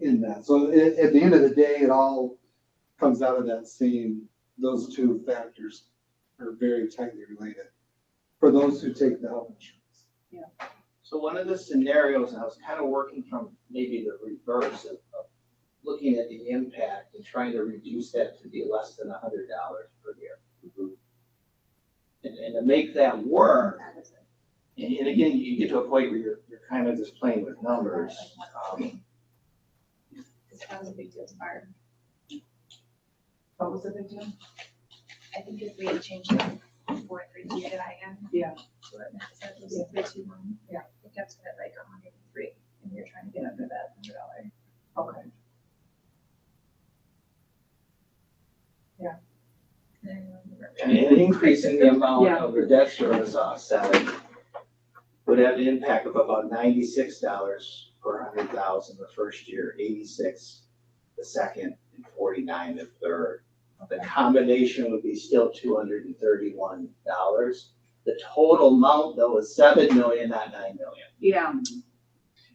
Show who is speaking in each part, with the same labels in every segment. Speaker 1: in that. So at, at the end of the day, it all comes out of that same, those two factors are very tightly related for those who take the health insurance.
Speaker 2: So one of the scenarios, and I was kind of working from maybe the reverse of, of looking at the impact and trying to reduce that to be less than a hundred dollars per year. And, and to make that work, and, and again, you get to a point where you're, you're kind of just playing with numbers. um,
Speaker 3: It's not a big deal to fire.
Speaker 4: What was the big deal?
Speaker 3: I think if we had changed it before three to I M.
Speaker 4: Yeah.
Speaker 3: That was a bit too long.
Speaker 4: Yeah.
Speaker 3: It gets to like a hundred and three, and you're trying to get under that hundred dollar.
Speaker 4: Okay.
Speaker 2: And and increasing the amount of the debt service offset would have an impact of about ninety-six dollars per hundred thousand the first year, eighty-six the second, and forty-nine the third. The combination would be still two hundred and thirty-one dollars. The total amount though is seven million, not nine million.
Speaker 5: Yeah,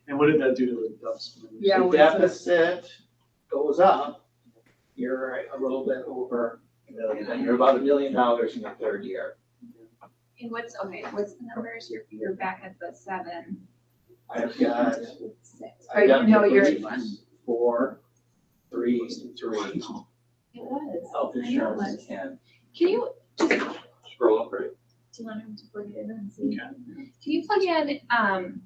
Speaker 6: And what did that do to the DUS?
Speaker 5: Yeah,
Speaker 2: The
Speaker 5: what is it?
Speaker 2: deficit goes up, you're a little bit over a million, you're about a million dollars in the third year.
Speaker 3: And what's, okay, what's the numbers? You're, you're back at the seven,
Speaker 2: I've got,
Speaker 3: six.
Speaker 2: I've got.
Speaker 5: no, you're-
Speaker 2: three, Four, three, three,
Speaker 3: It was.
Speaker 2: health insurance and.
Speaker 3: Can you,
Speaker 2: Scroll up, right?
Speaker 3: do you want him to plug it in and see? Can you plug in, um,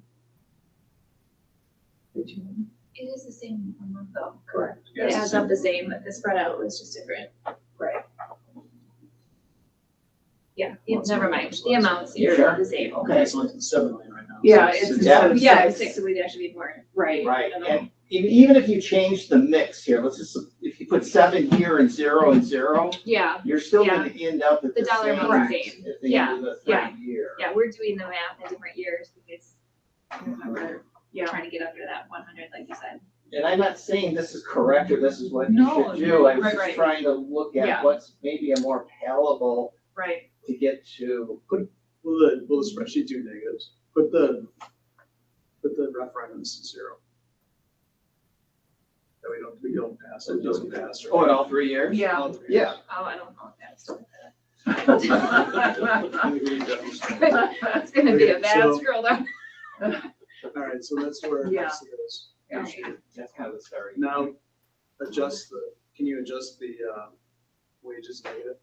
Speaker 3: it is the same amount though. Correct. It adds up the same, but the spread out was just different. Right. Yeah, yeah, never mind. The amounts
Speaker 2: You
Speaker 3: here
Speaker 2: sure?
Speaker 3: are the same. Oh,
Speaker 2: Okay.
Speaker 6: It's like seven million right now.
Speaker 5: yeah,
Speaker 6: So
Speaker 5: it's
Speaker 6: it's-
Speaker 5: instead of
Speaker 3: Yeah,
Speaker 5: six,
Speaker 3: six, so we'd actually be more.
Speaker 5: right.
Speaker 2: Right, and even, even if you change the mix here, let's just, if you put seven here and zero and zero,
Speaker 3: Yeah,
Speaker 2: you're still gonna end up at
Speaker 3: The
Speaker 2: the
Speaker 3: dollar
Speaker 2: same.
Speaker 3: amount's the same.
Speaker 2: At the end of the
Speaker 3: Yeah,
Speaker 2: third year.
Speaker 3: yeah, we're doing the math in different years because we're
Speaker 5: Yeah.
Speaker 3: trying to get under that one hundred, like you said.
Speaker 2: And I'm not saying this is correct or this is what you
Speaker 5: No,
Speaker 2: should do, I was
Speaker 5: right, right.
Speaker 2: just trying to look
Speaker 5: Yeah.
Speaker 2: at what's maybe a more palatable
Speaker 5: Right,
Speaker 2: to get to.
Speaker 6: Will the, will the spreadsheet do negatives? Put the, put the referendums to zero. That we don't, we don't pass, it doesn't pass. right?
Speaker 2: Oh, in all three years?
Speaker 5: Yeah.
Speaker 2: All three years.
Speaker 3: Oh, I don't know if that's.
Speaker 6: I agree with that.
Speaker 3: It's gonna be a
Speaker 6: Okay,
Speaker 3: bad
Speaker 6: so-
Speaker 3: scroll down.
Speaker 6: All right, so that's where it
Speaker 5: Yeah.
Speaker 6: goes.
Speaker 2: That's kind of the starting.
Speaker 6: Now, adjust the, can you adjust the, uh, wages negative?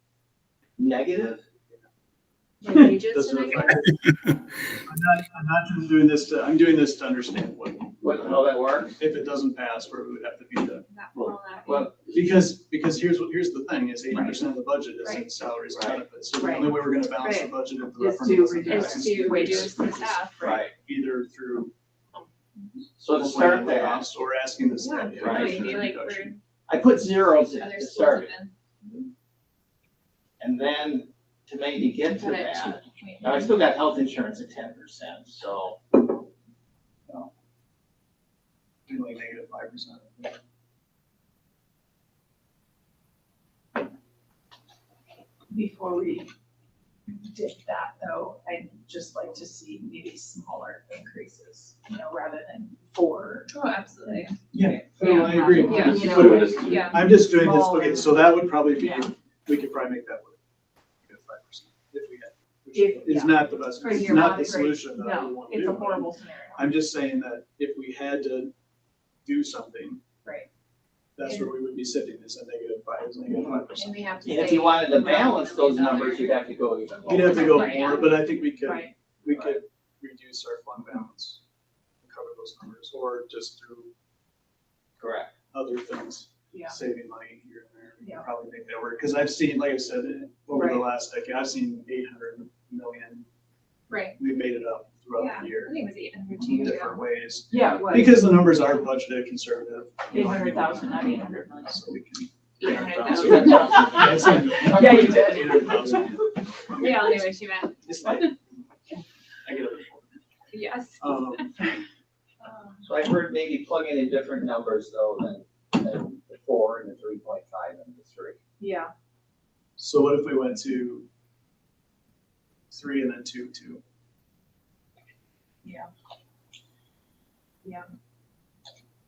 Speaker 2: negative.
Speaker 3: Wages
Speaker 6: Does
Speaker 3: to
Speaker 6: it
Speaker 3: make it-
Speaker 6: reflect it? I'm not, I'm not just doing this to, I'm doing this to understand what,
Speaker 2: What, how that works?
Speaker 6: if it doesn't pass, where it would have to be done.
Speaker 3: that will not be-
Speaker 2: Well,
Speaker 6: Because, because here's what, here's the thing, is eighty percent of the budget is in salaries and
Speaker 2: Right.
Speaker 6: benefits. So the only way we're gonna balance the budget if
Speaker 5: Is to
Speaker 6: the referendum doesn't
Speaker 5: reduce-
Speaker 6: pass
Speaker 3: Is
Speaker 6: is
Speaker 3: to reduce the
Speaker 6: wages.
Speaker 3: staff, right?
Speaker 2: right.
Speaker 6: Either through.
Speaker 2: So to start there,
Speaker 6: layoffs Or asking the staff.
Speaker 3: Yeah,
Speaker 6: to
Speaker 2: Right.
Speaker 6: make
Speaker 3: maybe
Speaker 6: a
Speaker 3: like
Speaker 6: reduction.
Speaker 3: we're,
Speaker 2: I put zeros in
Speaker 3: other
Speaker 2: to
Speaker 3: schools have
Speaker 2: start it.
Speaker 3: been.
Speaker 2: And then to maybe get to
Speaker 3: Got it.
Speaker 2: that,
Speaker 3: Wait,
Speaker 2: now I still got health insurance at ten percent, so.
Speaker 6: Do like negative five percent.
Speaker 4: Before we did that though, I'd just like to see maybe smaller increases, you know, rather than four.
Speaker 3: Oh, absolutely.
Speaker 6: No, I agree.
Speaker 4: Yeah,
Speaker 6: I'm
Speaker 5: you
Speaker 6: just
Speaker 5: know,
Speaker 6: doing this-
Speaker 3: Yeah.
Speaker 6: I'm just doing this,
Speaker 4: Smaller.
Speaker 6: okay, so that would probably be,
Speaker 5: Yeah.
Speaker 6: we could probably make that work. Negative five percent, if we had.
Speaker 4: If-
Speaker 6: It's
Speaker 4: yeah.
Speaker 6: not the best,
Speaker 4: For
Speaker 6: it's
Speaker 4: your
Speaker 6: not the
Speaker 4: monitoring.
Speaker 6: solution that I would
Speaker 4: No,
Speaker 6: want to do.
Speaker 4: it's a horrible scenario.
Speaker 6: I'm just saying that if we had to do something.
Speaker 4: Right.
Speaker 6: That's where we would be sitting, is a negative five, is negative five percent.
Speaker 3: And we have to.
Speaker 2: And if
Speaker 3: say-
Speaker 2: you wanted to balance those numbers, you'd have to go even lower.
Speaker 6: You'd have to go
Speaker 3: Right, yeah.
Speaker 6: more, but I think we could,
Speaker 5: Right.
Speaker 6: we could reduce our fund balance, and cover those numbers, or just through
Speaker 2: Correct.
Speaker 6: other things.
Speaker 4: Yeah.
Speaker 6: Saving money here and there, we
Speaker 4: Yeah.
Speaker 6: can probably make that work, because I've seen, like I said, in- over the
Speaker 4: Right.
Speaker 6: last decade, I've seen eight hundred million,
Speaker 3: Right.
Speaker 6: we made it up throughout
Speaker 3: Yeah.
Speaker 6: the
Speaker 3: I
Speaker 6: year,
Speaker 3: think it was eight hundred two
Speaker 6: in
Speaker 3: years ago.
Speaker 6: different ways.
Speaker 5: Yeah, it was.
Speaker 6: Because the numbers are budgeted conservative. you
Speaker 4: Eight
Speaker 6: know, I mean,
Speaker 4: hundred thousand, not eight hundred million.
Speaker 6: So we can.
Speaker 3: Eight hundred
Speaker 6: So
Speaker 3: thousand.
Speaker 6: that's- that's-
Speaker 5: Yeah, you did.
Speaker 3: We all knew what you meant.
Speaker 6: It's like, I get it.
Speaker 3: Yes.
Speaker 6: Um,
Speaker 2: So I heard maybe plugging in different numbers though than, than the four and the three point five and the three.
Speaker 5: Yeah,
Speaker 6: so what if we went to three and then two, two?
Speaker 4: Yeah. Yeah.